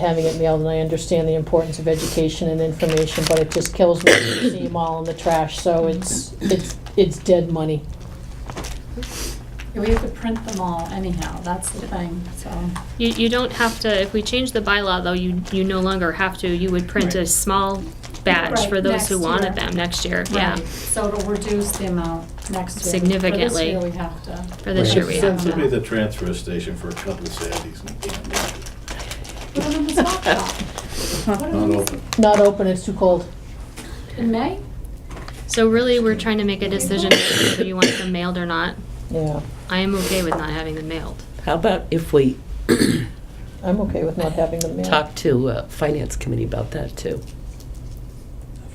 having it mailed, and I understand the importance of education and information, but it just kills me to see them all in the trash, so it's, it's, it's dead money. We have to print them all anyhow, that's the thing, so. You, you don't have to, if we change the bylaw though, you, you no longer have to, you would print a Right. small batch Right, for those who next wanted year. them next year, yeah. Right, So it'll reduce the amount next year. For this Significantly. year, we have to. For this Right. year we have Sent to me the transfer station for a couple of Saturdays and can't make it. Put them in the stock shop. Put them in Not the- open. Not open, it's too cold. In May? So really, we're trying to make a decision whether you want them mailed or not. Yeah, I am okay with not having them mailed. How about if we I'm okay with not having them mailed. talk to uh, Finance Committee about that, too?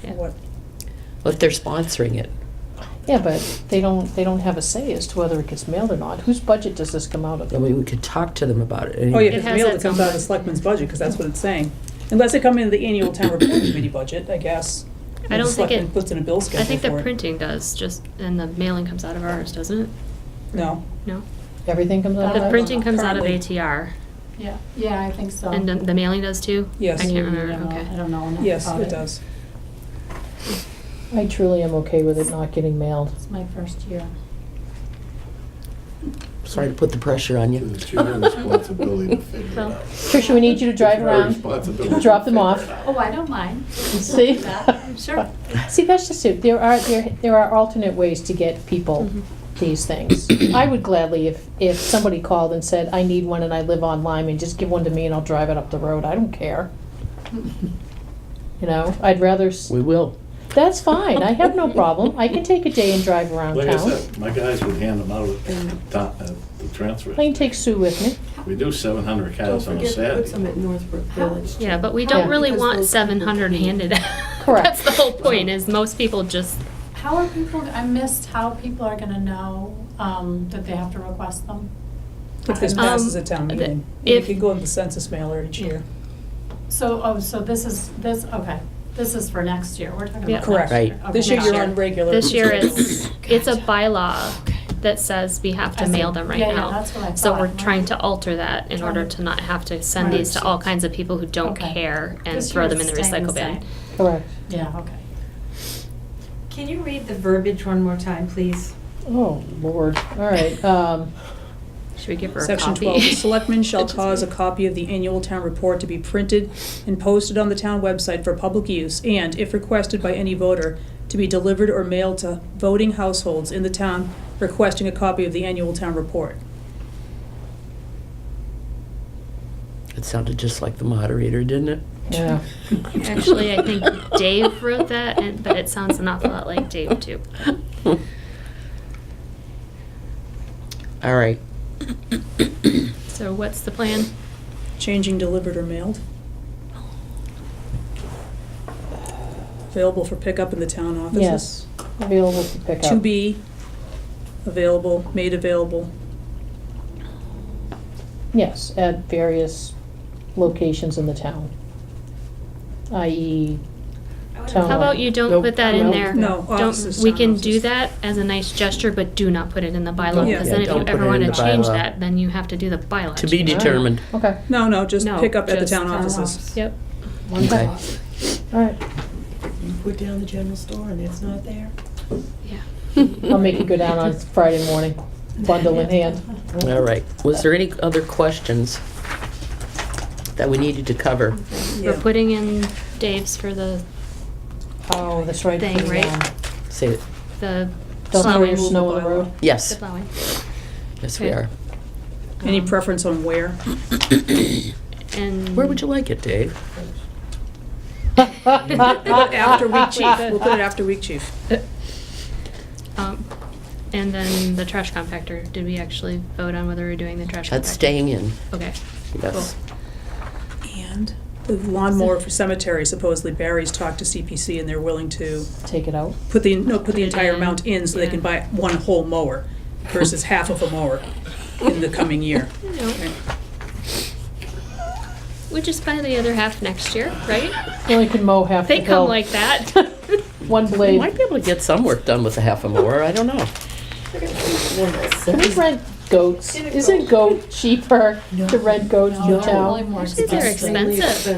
Yeah. Well, If they're sponsoring it. Yeah, but they don't, they don't have a say as to whether it gets mailed or not. Whose budget does this come out of? I mean, we could talk to them about it. Oh, It yeah, if it's has mailed, that it comes out of somewhere. the selectmen's budget, because that's what it's saying. Unless it come in the annual town report committee budget, I guess. I don't The think it- selectmen Puts in a bill schedule I think the for it. printing does, just, and the mailing comes out of ours, doesn't it? No. No? Everything comes Uh, out of The that? printing comes out of Currently. ATR, Yeah, yeah, I think so. and the- the mailing does too? Yes. I can't I don't remember, know- Uh-huh. I okay. don't know enough Yes, about it does. I truly am okay with it not getting mailed. It's my first year. Sorry to put the pressure on you. It's your responsibility to figure it Well, out. Tricia, we need you to drive It's our around, responsibility to drop them figure off. it out. Oh, I don't mind. See? I'm sure. See, that's just it. There are, there, there are alternate ways to get people Mhm. these things. I would gladly, if, if somebody called and said, I need one and I live on Lyman, just give one to me and I'll drive it up the road. I don't care. You know, I'd rather, s- We will. that's fine. I have no problem. I can take a day and drive around Like I town. Mm. said, my guys would hand them out at the top- at the transfer. I can take Sue with me. We do seven hundred Don't cows on a forget to put some Saturday. at Northbrook Village. Yeah, but we Yeah. don't really Because want those people seven hundred can't- handed out. Correct. That's the whole point, is most people just, How are people, I missed how people are gonna know um, that they have to request them. If this Um, passes a town the- meeting, it if- can go in the census mailer each year. So, oh, so this is, this, okay, this is for next year, we're talking about Yeah. next year. Correct. Right. Okay. This year Next you're year. on regular. this year schedule. it's, it's a bylaw that says we have I to see. mail them right Yeah, yeah, now. that's what I So thought, we're right. trying to alter that in Trying order to- to not have to send Right. these to all kinds of people who don't Okay. care and This throw year them in the it's staying the recycle bin. same. Correct. Yeah, okay. Can you read the verbiage one more time, please? Oh, Lord. All right. Um, Should we give her a copy? Section 12, the selectmen shall It's just- cause a copy of the annual town report to be printed and posted on the town website for public use, and if requested by any voter, to be delivered or mailed to voting households in the town requesting a copy of the annual town report. It sounded just like the moderator, didn't it? yeah. Actually, I think Dave wrote that, and, but it sounds an awful lot like Dave too. All right. So what's the plan? Changing delivered or mailed. Available for pickup in the town offices. Yes. Available to pick up. To be available, made available. Yes, at various locations in the town. I.e., Town. How about you don't Nope. put that in Nope. there? No, Don't, offices, we town can do offices. that as a nice gesture, but do not put it in the bylaw, Yeah. because Yeah, then if don't you put ever it in wanna the change bylaw. that, then you have to do the bylaw. To be change. determined. okay, No, no, just No, pick up at the just town town offices. Yep, Okay. all right. You put down the general store and it's not there. yeah. I'll make you go down on Friday morning, bundle in hand. All right. Was there any other questions that we needed to cover? We're Yeah. putting in Dave's for the, Oh, that's right. Thing, the, right? um, Say it. the Don't throw your plowing. snow on the road. The Yes. plowing. Yes, we Okay. are. Any Um, preference on where? And. Where would you like it, Dave? After week chief, we'll put it after week chief. Um, and then the trash compactor, did we actually vote on whether we're doing the trash compactor? That's staying in. Okay, Yes. And? The lawnmower for cemetery, supposedly Barry's talked to CPC and they're willing to Take it out. put the, no, put Put it the entire in, amount in so they can buy yeah. one whole mower versus half of a mower in the coming year. you know, we just buy the other half next year, right? You only can mow half the They come hill, like that. one We blade. might be able to get some work done with a half a mower. I don't know. Can we rent goats. Get a Isn't goat. goat cheaper No. to red goats No, in they're town? really more Actually, they're expensive. expensive.